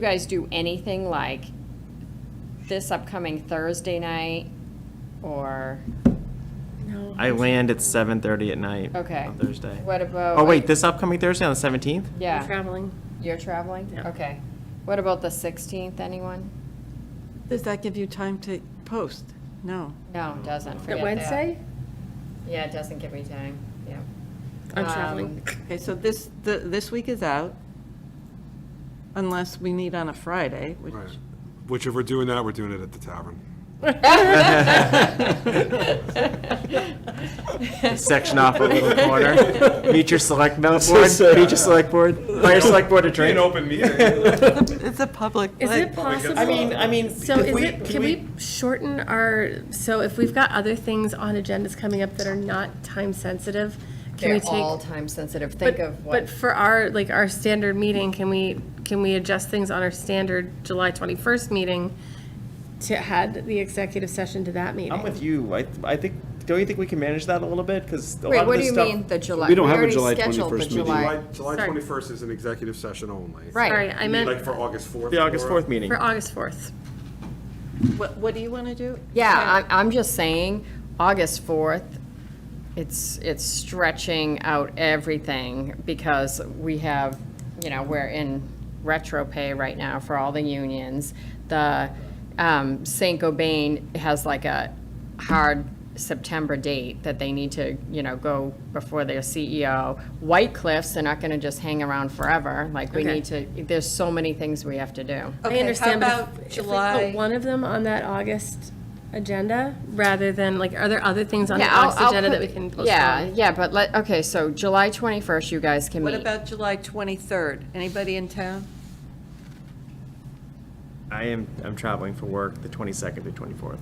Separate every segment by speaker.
Speaker 1: you guys do anything like this upcoming Thursday night or,
Speaker 2: I land at seven thirty at night.
Speaker 1: Okay.
Speaker 2: On Thursday.
Speaker 1: what about?
Speaker 2: Oh, wait, this upcoming Thursday on the seventeenth?
Speaker 1: Yeah.
Speaker 3: Traveling.
Speaker 1: You're traveling?
Speaker 3: Yeah.
Speaker 1: Okay. What about the 16th, anyone?
Speaker 4: Does that give you time to post? No.
Speaker 1: No, it doesn't, forget
Speaker 3: That
Speaker 1: that.
Speaker 3: Um, Wednesday?
Speaker 1: Yeah, it doesn't give me time, yeah.
Speaker 3: I'm
Speaker 1: Um,
Speaker 3: traveling.
Speaker 4: Okay, so this, the- this week is out, unless we meet on a Friday, which,
Speaker 5: Right. Which if we're doing that, we're doing it at the tavern.
Speaker 2: Section off a little corner. Meet your select board, meet your select board, buy your select board a drink.
Speaker 5: open meeting.
Speaker 4: it's a public
Speaker 3: Is
Speaker 4: place.
Speaker 3: it possible?
Speaker 2: I mean, I mean.
Speaker 3: So
Speaker 2: if
Speaker 3: is
Speaker 2: we-
Speaker 3: it, can we shorten our, so if we've got other things on agendas coming up that are not time sensitive, can
Speaker 1: They're
Speaker 3: we take?
Speaker 1: all time sensitive,
Speaker 3: but-
Speaker 1: think of
Speaker 3: But
Speaker 1: what,
Speaker 3: for our, like, our standard meeting, can we, can we adjust things on our standard July 21st meeting to add the executive session to that meeting?
Speaker 2: I'm with you. I, I think, don't you think we can manage that a little bit? Because a lot
Speaker 1: wait,
Speaker 2: of
Speaker 1: what do
Speaker 2: this
Speaker 1: you
Speaker 2: stuff-
Speaker 1: mean, the July?
Speaker 6: don't have a
Speaker 1: already
Speaker 6: July
Speaker 1: scheduled the
Speaker 6: 21st meeting.
Speaker 1: July-
Speaker 5: July, July
Speaker 3: Sorry.
Speaker 5: 21st is an executive session only.
Speaker 3: Sorry,
Speaker 1: Right,
Speaker 3: I
Speaker 5: Like
Speaker 3: meant
Speaker 5: for August 4th.
Speaker 2: The August
Speaker 5: or-
Speaker 2: fourth meeting.
Speaker 3: for August 4th.
Speaker 4: What, what do you want to do?
Speaker 1: yeah, I'm, I'm just saying, August 4th, it's, it's stretching out everything because we have, you know, we're in retro pay right now for all the unions. The, um, St. Gobain has like a hard September date that they need to, you know, go before their CEO. White Cliffs, they're not gonna just hang around forever, like, we
Speaker 3: Okay.
Speaker 1: need to, there's so many things we have to do.
Speaker 3: I understand, but if-
Speaker 4: How about
Speaker 3: if we put
Speaker 4: July?
Speaker 3: one of them on that August agenda, rather than, like, are there other things on the
Speaker 1: Yeah, I'll-
Speaker 3: August
Speaker 1: I'll
Speaker 3: agenda
Speaker 1: put-
Speaker 3: that we can
Speaker 1: Yeah,
Speaker 3: postpone?
Speaker 1: yeah, but let, okay, so July 21st, you guys can
Speaker 4: What
Speaker 1: meet.
Speaker 4: about July 23rd? Anybody in town?
Speaker 2: I am, I'm traveling for work the twenty-second to twenty-fourth.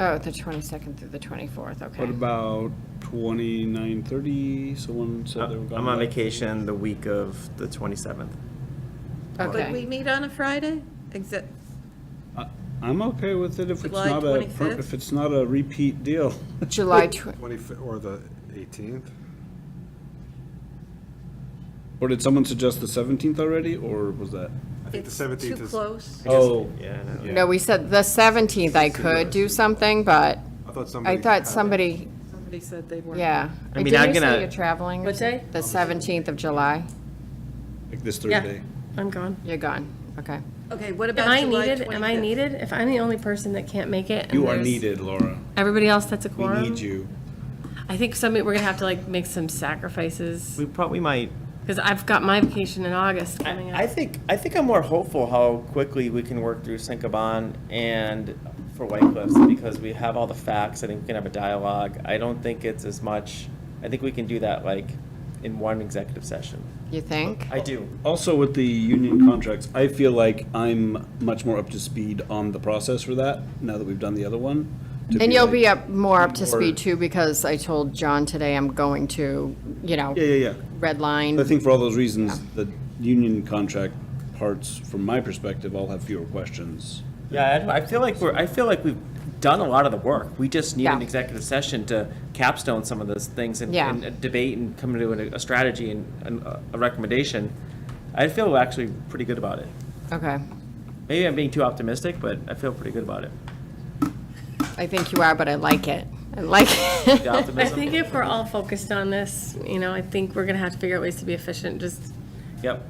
Speaker 1: Oh, the 22nd through the 24th, okay.
Speaker 6: What about twenty-nine thirty? Someone said they were gone.
Speaker 2: Uh, I'm on vacation the week of the twenty-seventh.
Speaker 4: Would we
Speaker 1: Okay,
Speaker 4: meet on a Friday? Except,
Speaker 6: I- I'm okay with it if it's
Speaker 4: July
Speaker 6: not a, per-
Speaker 4: 25th?
Speaker 6: if it's not a repeat deal.
Speaker 1: July, tw-
Speaker 5: 25th or the 18th?
Speaker 6: Or did someone suggest the seventeenth already, or was that?
Speaker 5: I think the
Speaker 4: it's too
Speaker 5: 17th is.
Speaker 4: close.
Speaker 6: Oh.
Speaker 2: Yeah, I know.
Speaker 1: no, we said the 17th I could do something, but
Speaker 5: I thought somebody.
Speaker 1: I thought
Speaker 5: had it.
Speaker 1: somebody,
Speaker 4: Somebody said they weren't.
Speaker 1: yeah.
Speaker 2: I mean,
Speaker 1: Didn't
Speaker 2: I'm
Speaker 1: you say
Speaker 2: gonna-
Speaker 1: You're traveling? or
Speaker 3: What
Speaker 1: something?
Speaker 3: day?
Speaker 1: The 17th of July,
Speaker 6: Like this
Speaker 3: Yeah,
Speaker 6: Thursday?
Speaker 3: I'm gone.
Speaker 1: you're gone, okay.
Speaker 4: Okay, what about
Speaker 3: Am I
Speaker 4: July 25th?
Speaker 3: needed? Am I needed? If I'm the only person that can't make it, and
Speaker 6: You are
Speaker 3: there's
Speaker 6: needed, Laura.
Speaker 3: Everybody else that's a
Speaker 6: We
Speaker 3: quorum.
Speaker 6: need you.
Speaker 3: I think some we're gonna have to like make some sacrifices
Speaker 2: We probably might.
Speaker 3: because I've got my vacation in August coming
Speaker 2: I, I
Speaker 3: up.
Speaker 2: think I think I'm more hopeful how quickly we can work through Syncoban and for White Cliffs because we have all the facts. I think we can have a dialogue. I don't think it's as much. I think we can do that like in one executive session.
Speaker 1: You think?
Speaker 2: I do.
Speaker 6: Also with the union contracts, I feel like I'm much more up to speed on the process for that, now that we've done the other one. to
Speaker 1: And you'll
Speaker 6: like-
Speaker 1: be up, more up to
Speaker 6: Or-
Speaker 1: speed too, because I told John today I'm going to, you know,
Speaker 6: Yeah, yeah, yeah.
Speaker 1: red line.
Speaker 6: I think for all those reasons, the union contract parts, from my perspective, all have fewer questions.
Speaker 2: Yeah, I, don't- I feel like we're. I feel like we've done a lot of the work. We just need an
Speaker 1: Yeah.
Speaker 2: executive session to capstone some of those things and,
Speaker 1: Yeah.
Speaker 2: and debate and come to a, a strategy and, and a a recommendation. I feel actually pretty good about it.
Speaker 1: Okay,
Speaker 2: Maybe I'm being too optimistic, but I feel pretty good about it.
Speaker 1: I think you are, but I like it, I like it.
Speaker 2: The
Speaker 3: I
Speaker 2: optimism.
Speaker 3: think if we're all focused on this, you know, I think we're gonna have to figure out ways to be efficient. Just
Speaker 2: Yep.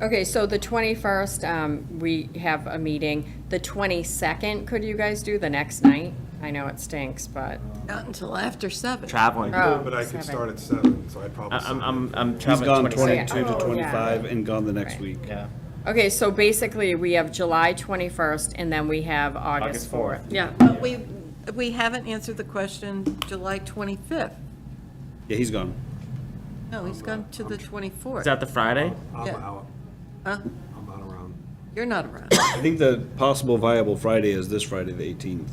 Speaker 1: Okay, so the 21st, um, we have a meeting. The 22nd, could you guys do the next night? I know it stinks, but,
Speaker 4: Not until after seven.
Speaker 2: Traveling. I,
Speaker 1: oh.
Speaker 5: But I could
Speaker 1: seven.
Speaker 5: start at seven, so I'd probably.
Speaker 2: I'm, I'm, I'm
Speaker 6: He's
Speaker 2: traveling.
Speaker 6: gone
Speaker 2: 26.
Speaker 6: twenty-two to
Speaker 1: Oh, yeah.
Speaker 6: twenty-five and gone the next week.
Speaker 2: Yeah.
Speaker 1: Okay, so basically, we have July 21st, and then we have August
Speaker 2: August 4th.
Speaker 1: 4th.
Speaker 3: yeah,
Speaker 4: But we, we haven't answered the question, July 25th.
Speaker 6: Yeah, he's gone.
Speaker 4: No, he's gone to the
Speaker 2: Is
Speaker 4: 24th.
Speaker 2: that the Friday?
Speaker 5: I'm
Speaker 4: Yeah.
Speaker 5: out.
Speaker 4: Huh?
Speaker 5: I'm not around.
Speaker 4: You're not around.
Speaker 6: I think the possible viable Friday is this Friday, the eighteenth.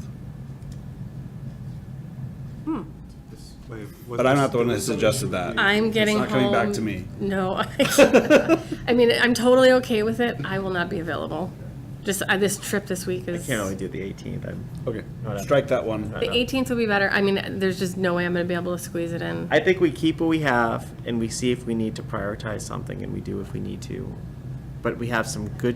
Speaker 5: This- wait, was
Speaker 6: But I'm
Speaker 5: this-
Speaker 6: not the one that
Speaker 5: was somebody-
Speaker 6: suggested that.
Speaker 3: I'm getting home.
Speaker 6: It's not coming back to me.
Speaker 3: No, I- I mean, I'm totally okay with it. I will not be available. Just uh, this trip this week is.
Speaker 2: Can't really do the 18th. I'm,
Speaker 6: Okay, strike that one.
Speaker 3: The 18th will be better. I mean, there's just no way I'm gonna be able to squeeze it in.
Speaker 2: I think we keep what we have and we see if we need to prioritize something and we do if we need to. but we have some good